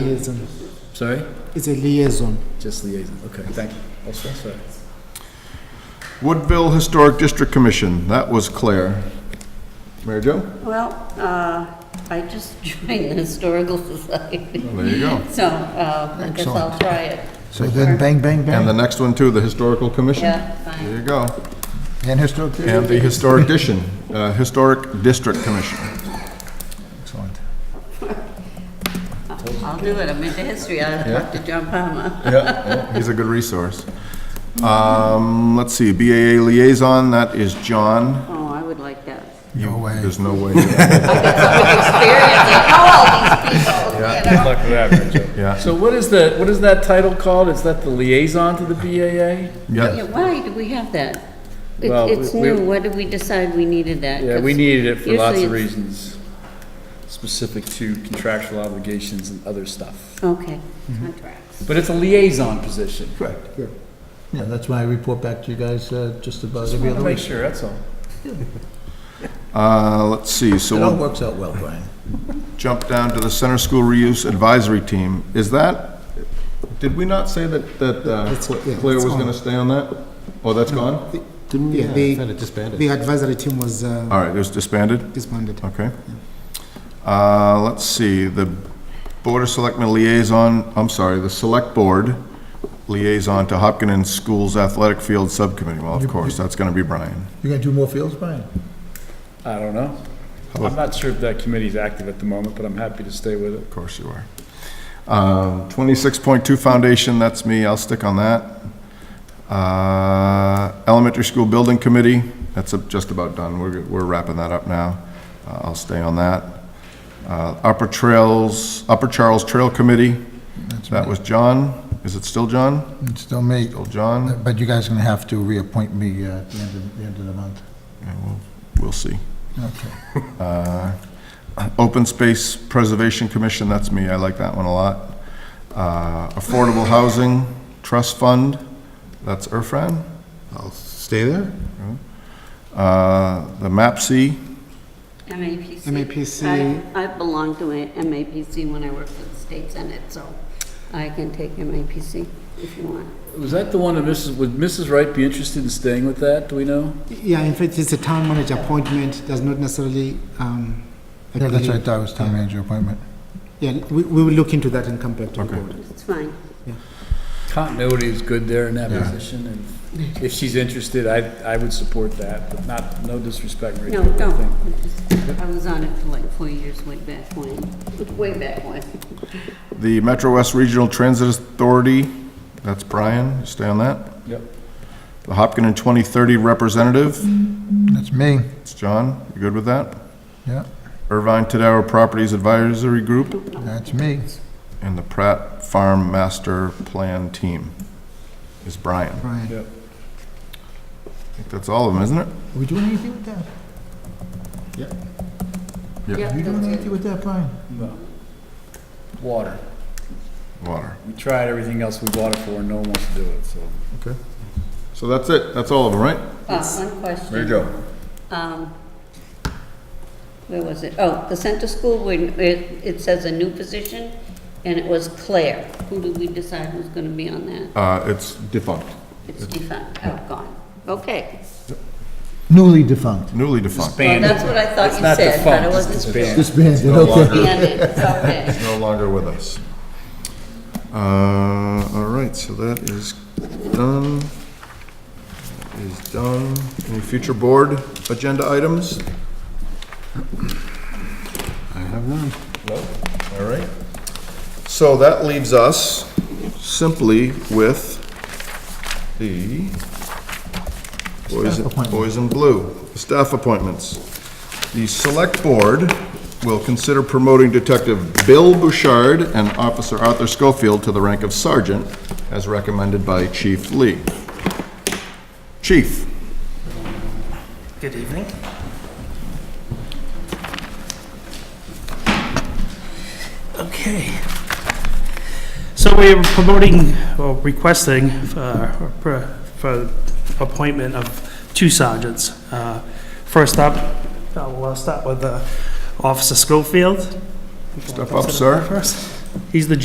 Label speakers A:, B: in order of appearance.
A: Liaison.
B: Sorry?
A: It's a liaison.
B: Just liaison, okay, thank you. Also, sorry.
C: Woodville Historic District Commission, that was Claire. Mary Jo?
D: Well, uh, I just joined the Historical Society,
C: There you go.
D: so uh, I guess I'll try it.
E: So then, bang, bang,
C: And the
E: bang,
C: next one too, the Historical Commission?
D: Yeah,
C: There
D: fine.
C: you go.
E: and historic
C: And
E: district.
C: the Historic Edition, uh, Historic District Commission.
E: Excellent.
D: I'll do it. I'm into history. I'll talk to John Palmer.
C: Yeah. He's a good resource. Um, let's see, BAA Liaison, that is John.
D: Oh, I would like that.
E: No way.
C: There's no way. Yeah.
D: Experience, I know all these people, you know.
C: Yeah.
B: So what is the, what is that title called? Is that the liaison to the BAA?
D: Yeah, Why do we have that? It-
B: Well,
D: It's
B: we- we-
D: new. What did we decide we needed that?
B: Yeah, we
D: 'Cause
B: needed it for lots
D: usually
B: of
D: it's-
B: reasons, specific to contractual obligations and other stuff.
D: Okay,
B: Mm-hmm.
D: contracts.
B: But it's a liaison position.
E: Correct. Yeah, that's why I report back to you guys uh, just about
B: Just
E: every
B: wanted to
E: other
B: make
E: week.
B: sure, that's all.
C: Uh, let's see, so
E: It all
C: we'll
E: works out well, Brian.
C: jump down to the Center School Reuse Advisory Team. Is that, did we not say that, that uh,
A: It's- yeah,
C: Claire
A: it's
C: was
A: on.
C: gonna stay on that? Oh, that's gone?
A: Didn't
E: uh,
A: we? The advisory team was uh,
C: All right, it was disbanded?
A: disbanded.
E: Oh.
C: Okay. Uh, Let's see, the Board of Selectmen liaison, I'm sorry, the Select Board liaison to Hopkinen Schools Athletic Field Subcommittee. Well, of course, that's going to be Brian.
E: You're gonna do more fields, Brian?
B: I don't know.
C: How
B: I'm
C: about-
B: not sure if that committee's active at the moment, but I'm happy to stay with it.
C: Of course you are. Um, 26.2 Foundation, that's me, I'll stick on that. Uh, Elementary School Building Committee, that's uh, just about done, we're we're wrapping that up now. Uh, I'll stay on that. Uh, Upper Trails, Upper Charles Trail Committee, that was John, is it still John?
E: It's still me,
C: Still John?
E: but you guys are gonna have to reappoint me uh, at the end of, the end of the month.
C: Yeah, we'll- We'll see.
E: Okay.
C: Open Space Preservation Commission, that's me, I like that one a lot. Uh, Affordable Housing Trust Fund, that's Erfran.
F: I'll stay there.
C: Uh, The MAPC,
D: MAPC.
A: MAPC.
D: I I belong to a MAPC when I worked for the state senate, so I can take MAPC if you want.
B: Was that the one that Mrs., would Mrs. Wright be interested in staying with that, do we know?
A: Yeah, in fact, it's a town manager appointment, does not necessarily. um,
E: Yeah, that's
A: agree.
E: right, that was town manager appointment.
A: Yeah, we, we will look into that and come back to the board.
D: It's fine.
B: Continuity is good there in that position, and if she's interested, I, I would support that, but not, no disrespect. Maria,
D: No,
B: but I
D: don't.
B: think-
D: I just- I was on it for like four years, way back when, way back when.
C: the Metro West Regional Transit Authority, that's Brian, stay on that.
B: Yep.
C: The Hopkinen 2030 Representative,
E: That's me,
C: it's John, you good with that?
E: yeah,
C: Irvine Tadaro Properties Advisory Group,
E: that's me.
C: and the Pratt Farm Master Plan Team is Brian.
A: Right.
B: Yep.
C: I think that's all of them, isn't it?
E: Are we doing anything with that? Are you doing anything with that, Brian?
B: No. Water.
C: Water.
B: We tried everything else we bought it for, and no one wants to do it, so.
C: So that's it, that's all of them, right?
D: Uh, One question.
C: go.
D: Um, Where was it? Oh, the center school, when it it says a new position, and it was Claire. Who did we decide was going to be on that?
C: Uh, it's defunct,
D: It's defunct, oh, gone. Okay.
E: Newly defunct.
C: newly defunct.
D: Well, that's what I thought you said, but I wasn't sure.
E: Disbanded,
C: No
E: okay.
C: longer,
D: Bandit, okay.
C: no longer with us. Uh, all right, so that is done. That Is done. Any future board agenda items?
F: I have none.
C: All right. So that leaves us simply with the boys,
E: Staff appointment.
C: boys in blue, staff appointments. The select board will consider promoting Detective Bill Bouchard and Officer Arthur Schofield to the rank of sergeant as recommended by Chief Lee. Chief?
G: Good evening. Okay. So we are promoting, or requesting, uh, or pro- for appointment of two sergeants. Uh, First up, uh, we'll start with uh, Officer Schofield.
C: Step up, sir.
G: First. He's the